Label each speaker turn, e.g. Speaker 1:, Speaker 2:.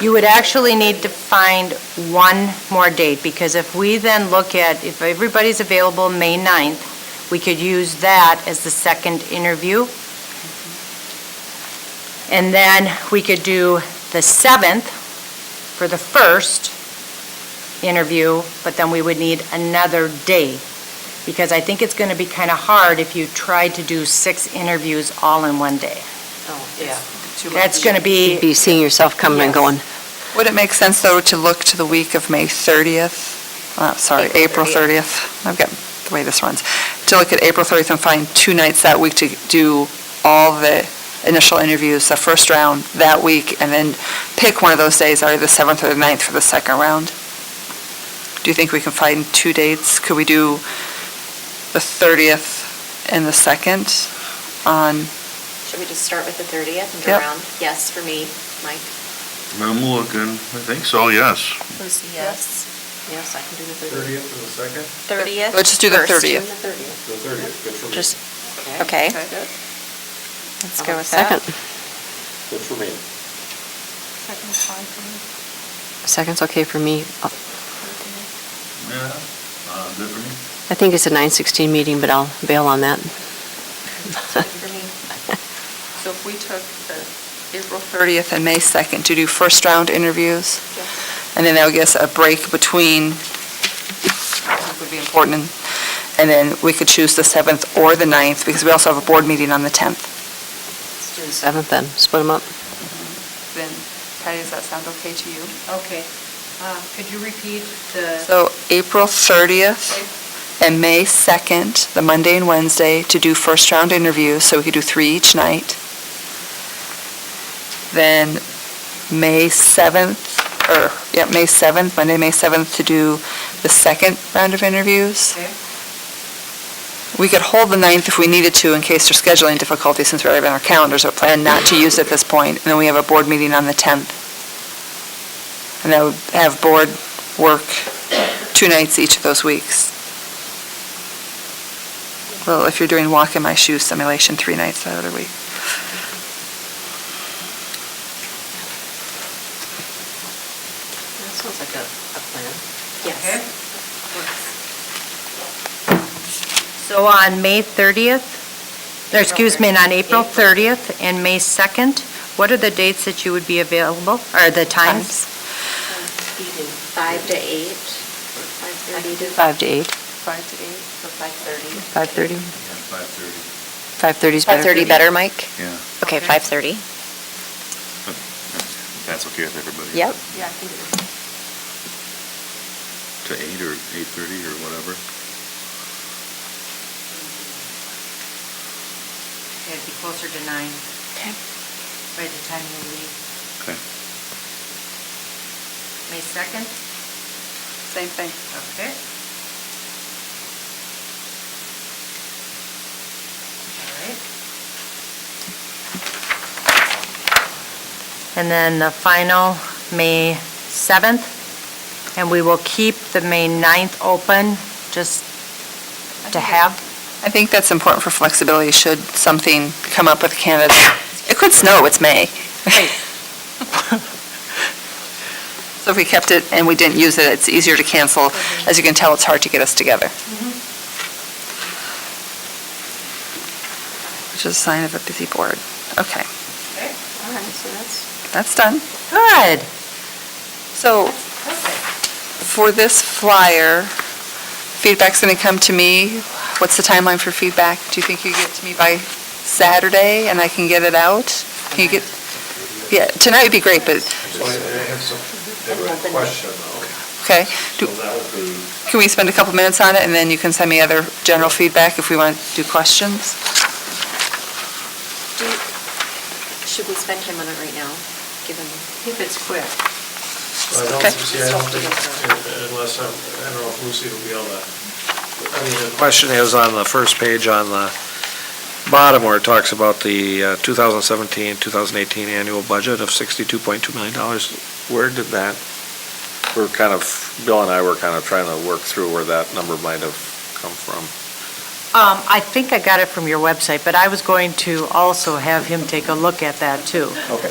Speaker 1: You would actually need to find one more date, because if we then look at, if everybody's available May 9th, we could use that as the second interview. And then we could do the 7th for the first interview, but then we would need another day, because I think it's going to be kind of hard if you tried to do six interviews all in one day.
Speaker 2: Oh, yeah.
Speaker 1: That's going to be,
Speaker 3: Be seeing yourself coming and
Speaker 1: Yes.
Speaker 3: going.
Speaker 4: Would it make sense, though, to look to the week of May 30th? Uh, Sorry,
Speaker 2: April
Speaker 4: April 30th. I've got the way this runs. To look at April 30th and find two nights that week to do all the initial interviews, the first round that week, and then pick one of those days, either the 7th or the 9th for the second round? Do you think we can find two dates? Could we do the 30th and the 2nd on,
Speaker 2: Should we just start with the 30th and go
Speaker 4: Yep.
Speaker 2: around? Yes, for me, Mike.
Speaker 5: I'm looking, I think so, yes.
Speaker 2: Lucy, yes. Yes, I can do the
Speaker 6: 30th and the second,
Speaker 2: 30th.
Speaker 4: Let's just do the
Speaker 2: first, and
Speaker 4: 30th.
Speaker 2: the 30th.
Speaker 6: the 30th, good for me.
Speaker 3: Just-
Speaker 2: Okay.
Speaker 3: Let's
Speaker 2: go with
Speaker 3: Second.
Speaker 2: that.
Speaker 6: Good for me.
Speaker 3: Second's okay for me. Uh,
Speaker 5: Yeah, uh, good for me.
Speaker 3: I think it's a 9:16 meeting, but I'll bail on that.
Speaker 2: For me.
Speaker 4: So if we took the April 30th and May 2nd to do first round interviews, and then I would guess a break between, would be important, and then we could choose the 7th or the 9th, because we also have a board meeting on the 10th.
Speaker 3: Let's do the Seventh then, split them up.
Speaker 4: Then, Patty, does that sound okay to you?
Speaker 1: okay, Uh, could you repeat the,
Speaker 4: So April 30th and May 2nd, the Monday and Wednesday, to do first round interviews, so we could do three each night. Then May 7th, or, yeah, May 7th, Monday, May 7th, to do the second round of interviews.
Speaker 1: Okay.
Speaker 4: We could hold the 9th if we needed to in case there's scheduling difficulties, since we already have it on our calendars, but plan not to use it at this point. And then we have a board meeting on the 10th. And that would have board work two nights each of those weeks. Well, if you're doing walk in my shoes simulation, three nights out of the week.
Speaker 2: That sounds like a, a plan.
Speaker 1: Okay.
Speaker 2: Yes.
Speaker 1: so on May 30th, or excuse me, on April 30th and May 2nd, what are the dates that you would be available, or the times?
Speaker 2: Evening, 5 to 8, 5:30 to...
Speaker 3: Five to eight,
Speaker 2: 5 to 8, or
Speaker 3: 5:30.
Speaker 2: 5:30.
Speaker 5: Five thirty,
Speaker 3: 5:30 is better. for you?
Speaker 2: Mike?
Speaker 5: yeah,
Speaker 2: Okay, 5:30.
Speaker 5: that's okay with everybody.
Speaker 2: Yep.
Speaker 5: To eight or eight thirty or whatever.
Speaker 1: It'd be closer to nine
Speaker 2: Okay.
Speaker 1: by the time you leave.
Speaker 5: Okay.
Speaker 1: May 2nd?
Speaker 4: Same thing.
Speaker 1: Okay. All right. And then the final, May 7th, and we will keep the May 9th open, just to have.
Speaker 4: I think that's important for flexibility, should something come up with candidates. It could snow, it's May. So if we kept it and we didn't use it, it's easier to cancel. As you can tell, it's hard to get us together. Which is a sign of a busy board. Okay,
Speaker 2: All right, so that's...
Speaker 4: that's done.
Speaker 1: Good.
Speaker 4: So for this flyer, feedback's going to come to me. What's the timeline for feedback? Do you think you get to me by Saturday and I can get it out? Can you get, yeah, tonight would be great, but,
Speaker 6: So I I have some, I have a question though.
Speaker 4: okay.
Speaker 6: So
Speaker 4: Do-
Speaker 6: that would be,
Speaker 4: Can we spend a couple minutes on it and then you can send me other general feedback if we want to do questions?
Speaker 2: Do, should we spend time on it right now, given? If it's quick.
Speaker 6: I don't,
Speaker 4: Okay.
Speaker 6: see, I don't think, unless I'm, I don't know if Lucy will be able to. I mean, the question is on the first page on the bottom where it talks about the uh, 2017, 2018 annual budget of $62.2 million. Where did that, we're kind of, Bill and I were kind of trying to work through where that number might have come from.
Speaker 1: Um, I think I got it from your website, but I was going to also have him take a look at that, too.
Speaker 6: Okay.